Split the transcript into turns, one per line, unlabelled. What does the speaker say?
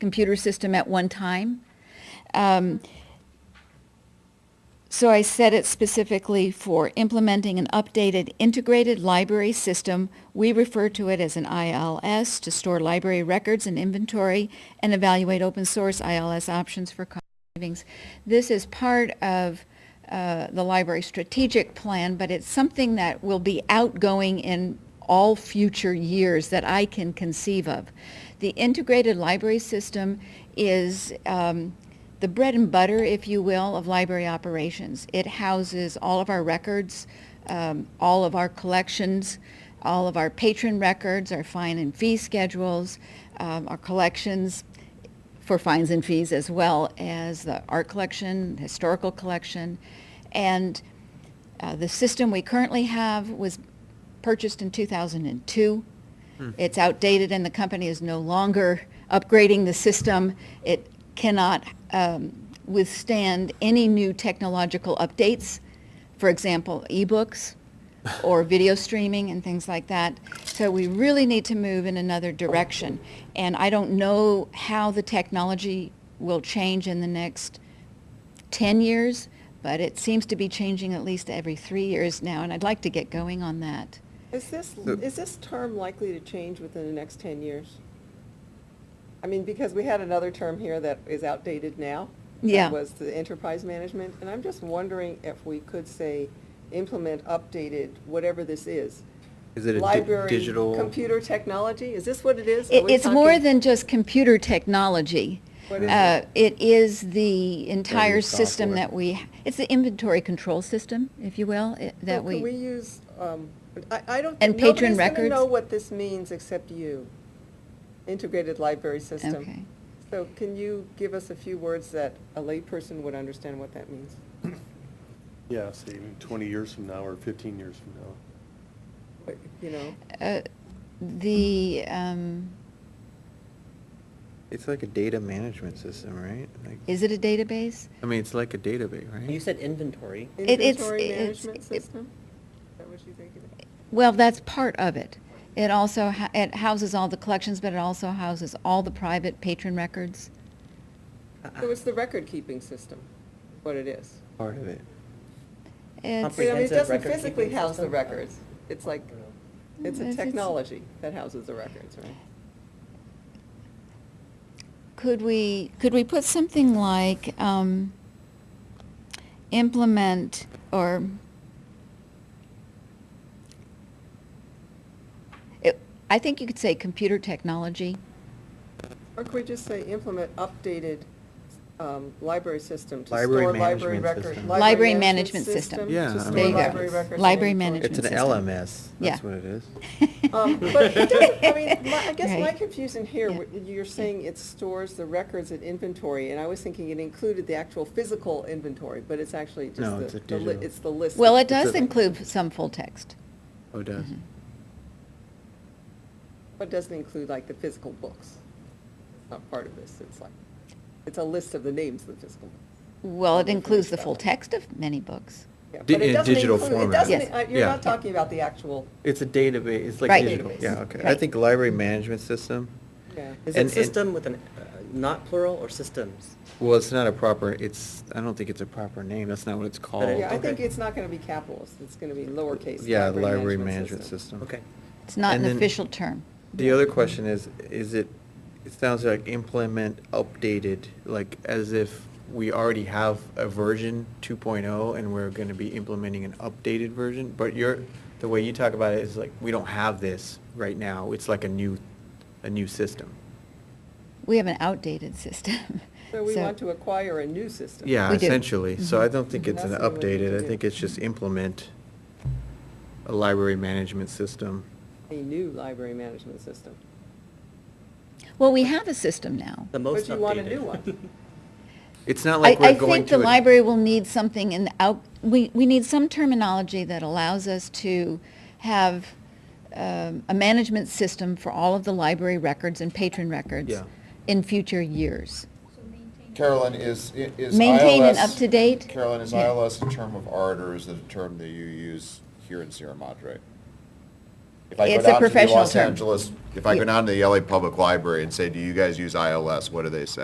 computer system at one time. Um, So I set it specifically for implementing an updated integrated library system. We refer to it as an ILS to store library records and inventory and evaluate open source ILS options for cost savings. This is part of uh, the library strategic plan, but it's something that will be outgoing in all future years that I can conceive of. The integrated library system is um, the bread and butter, if you will, of library operations. It houses all of our records, um, all of our collections, all of our patron records, our fine and fee schedules, um, our collections, for fines and fees as well as the art collection, historical collection. And uh, the system we currently have was purchased in 2002. It's outdated and the company is no longer upgrading the system. It cannot um, withstand any new technological updates, for example, ebooks or video streaming and things like that. So we really need to move in another direction. And I don't know how the technology will change in the next 10 years, but it seems to be changing at least every three years now, and I'd like to get going on that.
Is this,
The-
is this term likely to change within the next 10 years? I mean, because we had another term here that is outdated now. that
Yeah.
Was the enterprise management, and I'm just wondering if we could say, implement updated, whatever this is.
Is it a di- digital?
Library, computer technology, is this what it is? Are
It-
we
It's more
talking-
than just computer technology.
What is
Uh,
it?
It is the entire system
software.
that we, it's the inventory control system, if you will, it- that
So Can we
we,
use, um, I, I don't.
And patron
Nobody's gonna
records?
know what this means except you, integrated library system.
okay.
So can you give us a few words that a layperson would understand what that means?
Yeah, say even 20 years from now or 15 years from now.
Like, You know,
Uh, The, um,
It's like a data management system, right? Like-
is it a database?
Um,
I mean, it's like a database, right?
You said inventory.
It- it's-
inventory
it's-
management
it-
system? Is that what you think it is?
Well, that's part of it. It also, ha- it houses all the collections, but it also houses all the private patron records.
Uh-uh.
So it's the record-keeping system, what it is.
Part of it.
It's-
I mean, it
Comprehensive
doesn't
record-keeping
physically house the
system?
records. It's like, it's
It's-
a
it's-
technology that houses the records, right?
Could we, could we put something like um, implement or it, I think you could say computer technology.
Or could we just say implement updated um, library system to store
Library
library
management
records?
system.
Library management system.
Yeah, I
To
mean,
store
There you go.
library records. and
Library
inventory.
management
It's an
system.
LMS, that's
Yeah.
what it is.
Um, But it doesn't- I mean, my- I guess my
Right.
confusion here,
Yeah.
wh- you're saying it stores the records and inventory, and I was thinking it included the actual physical inventory, but it's actually
No,
just
it's
the, the
a
li-
digital.
it's the list.
Well,
of-
it does
It's a-
include some full text.
Oh, it does.
Mhm.
But it doesn't include like the physical books. It's Not part of this, it's like, it's a list of the names of the physical.
Well, it
Let me
includes
finish
the
that
full
one.
text of many books.
yeah,
Di-
but it
in
doesn't
digital
include- it
format.
doesn't-
Yes.
uh, You're
Yeah.
not talking about the actual,
It's a database, it's
Right.
like digital, yeah, okay. I
Right.
think library management system,
yeah.
And-
Is it
and-
system with an, uh, not plural or systems?
well, it's not a proper, it's, I don't think it's a proper name, that's not what it's called.
it-
Yeah, I think
okay.
it's not gonna be capitals, it's gonna be lowercase.
Oh, Yeah, library management system.
Okay.
It's not
And
an
then-
official term.
The other question is, is it, it sounds like implement updated, like as if we already have a version 2.0 and we're going to be implementing an updated version, but you're, the way you talk about it is like, we don't have this right now, it's like a new, a new system.
We have an outdated system.
So we want to acquire a new system.
Yeah,
We do.
essentially, so I
Mhm.
don't think it's an
That's what we need
updated,
to
I
do.
think it's just implement a library management system.
A new library management system.
Well, we have a system now.
The most updated.
But you want a new one.
It's not
I,
like
I
we're going
think
to.
the
a-
library will need something in, the out, we, we need some terminology that allows us to have um, a management system for all of the library records and patron records
Yeah.
in future years.
Carolyn, is, i- is ILS...
Maintain and up-to-date?
Carolyn, is
Yeah.
ILS a term of art, or is it a term that you use here in Sierra Madre? If I go
It's a
down to the
professional
Los
term.
Angeles, if I go
Yeah.
down to the LA Public Library and say, do you guys use ILS, what do they say?